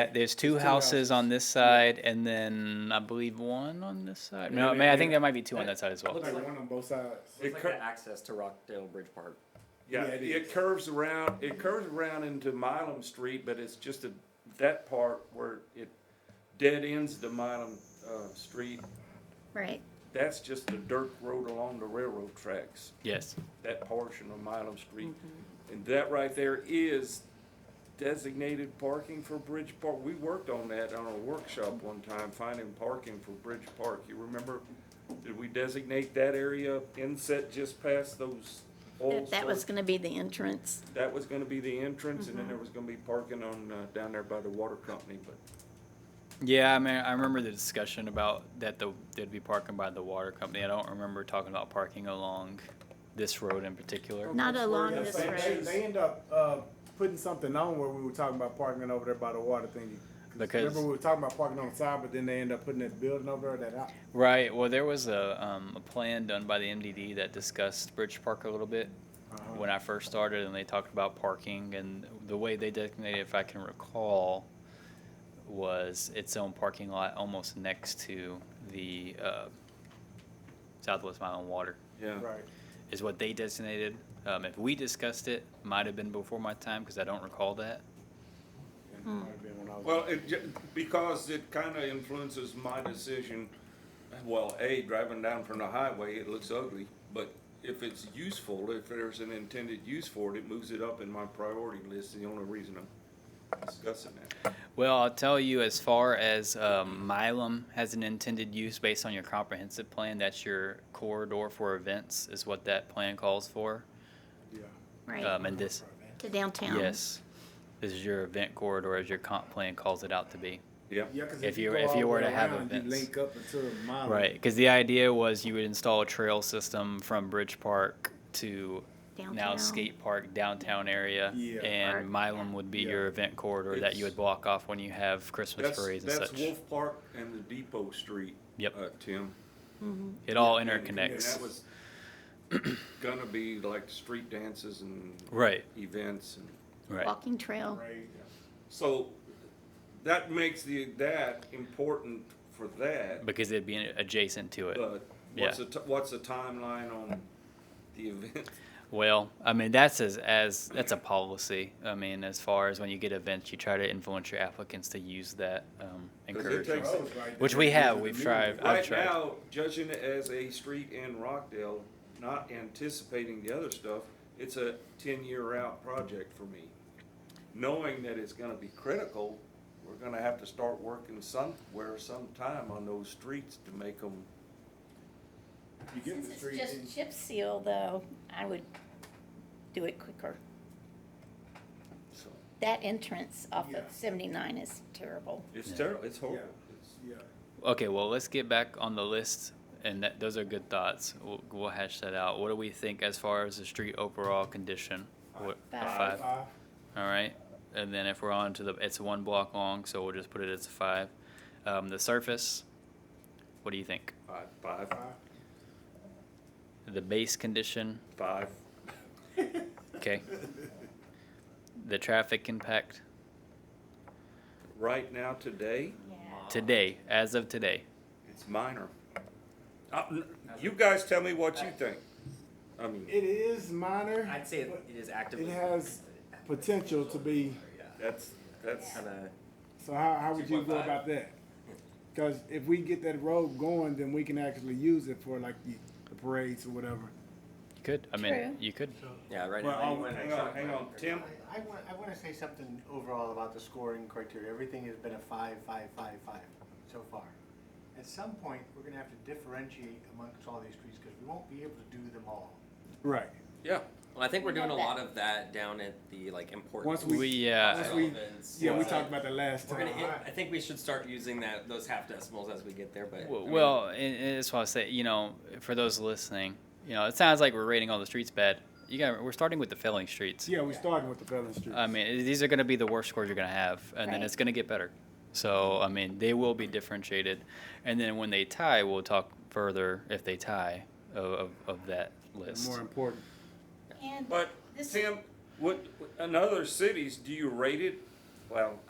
Uh, There's two houses on this side, and then I believe one on this side. No, I Yeah, mean, I yeah, think yeah. there might be two on that side as well. Looks There's like- one on both sides. It's It like cur- the access to Rockdale Bridge Park. Yeah, Yeah, it it is. curves around, it curves around into Milam Street, but it's just a, that part where it dead ends the Milam, uh, Street. Right. That's just the dirt road along the railroad tracks, Yes. that portion of Milam Street. Mm-hmm. And that right there is designated parking for Bridge Park. We worked on that on a workshop one time, finding parking for Bridge Park. You remember? Did we designate that area inset just past those old? That was circ- gonna be the entrance. that was gonna be the entrance, and then there was gonna be parking on, uh, down there by the water company, but Yeah, I mean, I remember the discussion about that the, there'd be parking by the water company. I don't remember talking about parking along this road in particular. Not that's along where this They- they- road. They end up, uh, putting something on where we were talking about parking over there by the water thingy. Because- Remember we were talking about parking on the side, but then they end up putting that building over there, that out. Right, well, there was a, um, a plan done by the MDD that discussed Bridge Park a little bit when I first started, and they talked about parking, and the way they designated, if I can recall, was its own parking lot almost next to the, uh, Southwest Mile and Water, Yeah. Right. is what they designated. Um, if we discussed it, might have been before my time, because I don't recall that. Hmm. Might have been when I was- Well, it, ju- because it kinda influences my decision, well, A, driving down from the highway, it looks ugly, but if it's useful, if there's an intended use for it, it moves it up in my priority list, the only reason I'm discussing that. Well, I'll tell you, as far as um, Milam has an intended use based on your comprehensive plan, that's your corridor for events, is what that plan calls for. Yeah. Right. Um, and this, To downtown. yes, this is your event corridor, as your comp plan calls it out to be. Yeah, Yeah, 'cause If you- go if all you the were way to have around, you events. Link up into the Um, mile. Right, because the idea was you would install a trail system from Bridge Park to now Downtown. skate park downtown area, Yeah. and Park, Milam yeah. would be Yeah. your event corridor that you It's- would block off when you have Christmas that's, parades and that's such. Wolf Park and the Depot Street. Yep. Uh, Tim. It all And- and interconnects. that was Gonna be like street dances and Right, events and, right. Walking trail. Right. so that makes the, that important for that. Because it'd be adjacent to it. But what's the, ti- what's the timeline on the event? Well, I mean that's as as that's a policy. I mean, as far as when you get events, you try to influence your applicants to use that um, 'Cause it encouragement. takes- Roads right Which there. we These have. are the We've new tried. ones. I've Right tried. now, judging it as a street in Rockdale, not anticipating the other stuff, it's a ten-year out project for me. Knowing that it's gonna be critical, we're gonna have to start working somewhere sometime on those streets to make them. You get Since the it's street in- just chip seal though, I would do it quicker. so, That entrance off Yeah. of seventy-nine is terrible. it's Yeah. terrible, it's horrible. Yeah. It's- Yeah. Okay, well let's get back on the list, and that, those are good thoughts. We'll, we'll hash that out. What do we think as far as the street overall condition? What, a Five. five. Five. All right, and then if we're on to the, it's one block long, so we'll just put it as a five. Um, the surface. What do you think? Five, five, Five. The base condition. five, Okay. The traffic impact right now, today, today, as of today. It's minor. Uh, n- You guys tell me what you think. I mean, It is minor. I'd say it it is actively. It has potential to be. that's, that's, Kind of. So how, how would you go 2.5. about that? Because if we get that road going, then we can actually use it for like the, the parades or whatever. You could. I mean, True. you could. Yeah, right well, now. oh, hang on, hang on, Tim, I want, I want to say something overall about the scoring criteria. Everything has been a five, five, five, five so far. At some point, we're going to have to differentiate amongst all these streets because we won't be able to do them all. Right. yeah, Well, I think we're We doing a love lot that. of that down at the like important. Once We, We- uh, once we- relevance. Yeah, we So, talked about that last We're time. gonna. Hit, I think we should start using that those half decimals as we get there. But I w- mean, well, and, and that's why I say, you know, for those listening, you know, it sounds like we're rating all the streets bad. You got. We're starting with the failing streets. Yeah, we're starting with the Pelham Streets. I mean, these are going to be the worst scores you're going to have, and then Right. it's going to get better. So, I mean, they will be differentiated, and then when they tie, we'll talk further if they tie of, of, of that list. More important. And but this- Tim, what, in other cities, do you rate it? Well,